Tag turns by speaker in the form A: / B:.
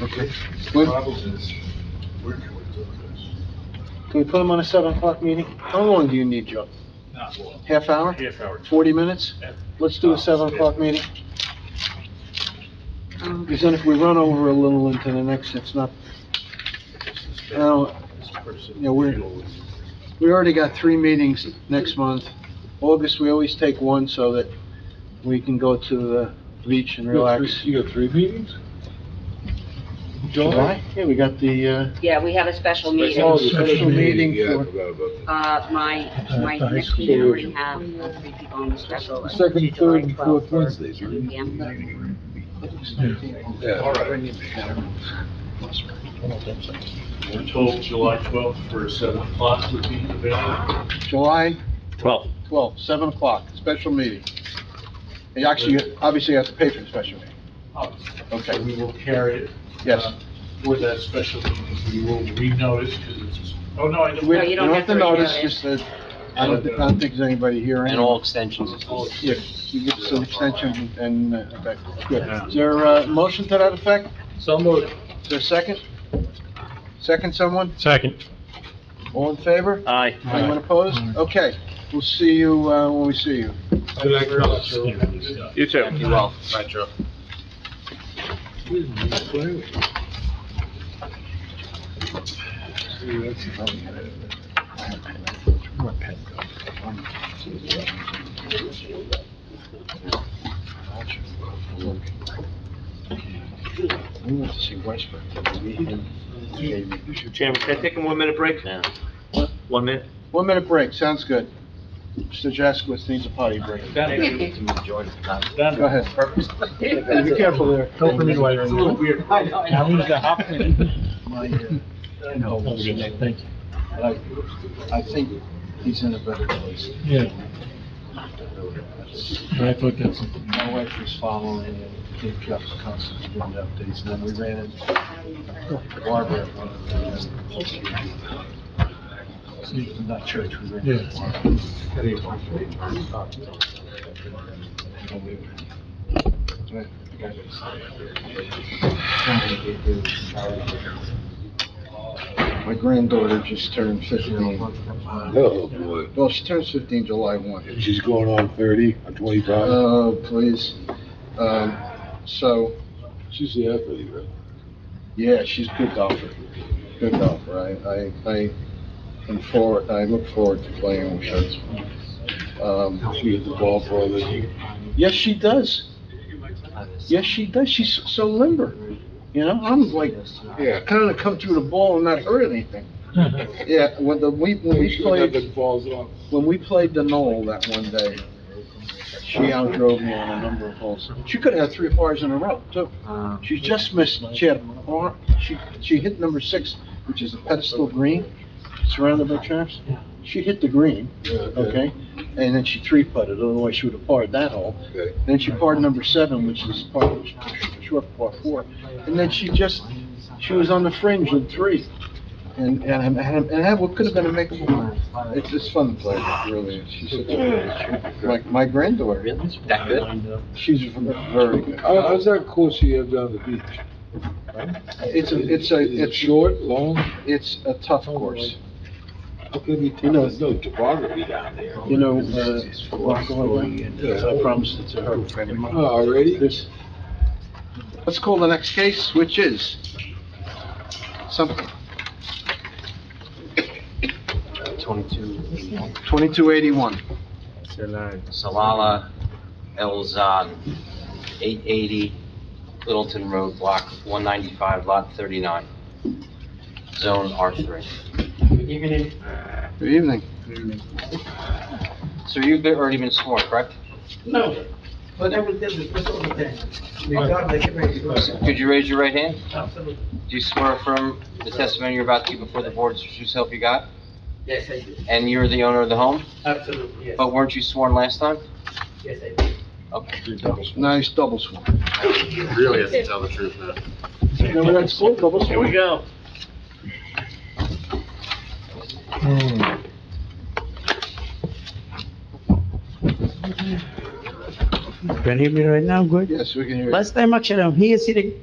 A: Okay.
B: When-
A: Problem is, where can we do this?
B: Can we put them on a seven o'clock meeting? How long do you need, Joe?
A: Not one.
B: Half hour?
A: Half hour.
B: Forty minutes? Let's do a seven o'clock meeting. Because then if we run over a little into the next, it's not, I don't- Yeah, we're- we already got three meetings next month. August, we always take one so that we can go to the beach and relax.
A: You got three meetings?
B: July? Yeah, we got the, uh,
C: Yeah, we have a special
B: Oh,
C: meeting.
B: the special meeting
A: Yeah, I
B: for-
A: forgot about that.
C: Uh, my, my next meeting, we have three people on the special.
D: Second, third, and fourth Wednesdays,
C: Seven PM.
A: All right,
E: We're told July 12th for 7 o'clock would be available.
B: July
F: Twelve.
B: twelfth, seven o'clock, special meeting. And actually, you obviously, you have to pay for the special meeting.
E: Okay, we will carry it.
B: Oh, Yes.
E: uh, For that special meeting, we will renotice because it's, oh, no, I
B: We
C: No,
E: don't.
C: you don't have to
B: notice,
C: redo it.
B: just that, I don't, I don't think there's anybody here.
D: and
B: anyway.
D: all extensions.
B: Yeah, you get some extension and, uh, okay, good. Is there a motion to that effect?
F: So moved.
B: Is there a second? Second someone?
F: Second.
B: All in favor?
F: Aye.
B: Anyone opposed? Okay, we'll see you, uh, when we see you.
A: Good night, fellas.
F: You too.
D: You will, right, Joe?
B: We want to see Westbrook.
F: Mr. Chairman, can I take a one-minute break? now? One minute?
B: One minute break, sounds good. Mr. Jaskowitz needs a potty break. Go ahead.
A: Be careful there. Don't forget why you're. It's a little weird.
G: Now who's the Hopkins?
B: My, uh, I know,
E: Oh,
G: Thank you.
B: I, I think he's in a better place.
G: Yeah, I thought that's,
B: My wife was following and they kept constantly giving updates, and then we ran into Barbara. at one of the- Not church, we ran into
G: Yeah.
B: Barbara. My granddaughter just turned fifteen.
A: Oh, boy.
B: Well, she turns fifteen July one.
A: She's going on thirty, on twenty-five.
B: Oh, please. Um, so,
A: She's the athlete, right?
B: yeah, she's a good golfer. Good golfer. I, I, I am forward, I look forward to playing with her. Um,
A: She hit the ball for the,
B: yes, she does. Yes, she does. She's so limber. You know, I'm like,
A: yeah.
B: kind of come through the ball and not hurt anything. Yeah, when the, we, when we played,
A: Nothing falls off.
B: when we played the Knoll that one day, she outdrove me on a number of holes. She could have had three pars in a row, too. She just missed, she had, a par- she, she hit number six, which is a pedestal green, surrounded by traps. She hit the green, okay, and then she three putted, otherwise she would have parred that hole.
A: Okay.
B: Then she parred number seven, which is par, short par four, and then she just, she was on the fringe in three. And, and, and and that what could have been a makeable round. It's, it's fun to play, with, really, is. she's such a, like, my granddaughter,
D: That good?
B: she's very good.
A: How, how's that course you have down the beach?
B: It's a, it's a,
A: Is it
B: it's,
A: short, long?
B: it's a tough course.
A: You know, there's no topography down there.
B: You know, uh, walk away, I promised it to
A: Oh,
B: her.
A: Already?
B: This- Uh, Let's call the next case, which is some,
D: Twenty-two,
B: twenty-two eighty-one.
D: Salala El Zad, eight eighty Littleton Road, block one ninety-five, lot thirty-nine, zone R three.
B: Good evening.
D: So you've been- already been sworn, correct?
H: No, but everything is just all the thing. Regardless, it may be person.
D: Could you raise your right hand?
H: Absolutely.
D: Do you swear affirm the testimony you're about to give before the board is the true self you got?
H: Yes, I do.
D: And you're the owner of the home,
H: Absolutely, yes.
D: but weren't you sworn last time?
H: Yes, I do.
D: Okay.
B: Nice double swan.
I: Really doesn't tell the truth, man.
B: Remember that school, double
F: Here we
B: swan?
F: go.
G: Can you hear me right now? Good.
B: Yes, we can hear you.
G: Last time, actually, I'm here sitting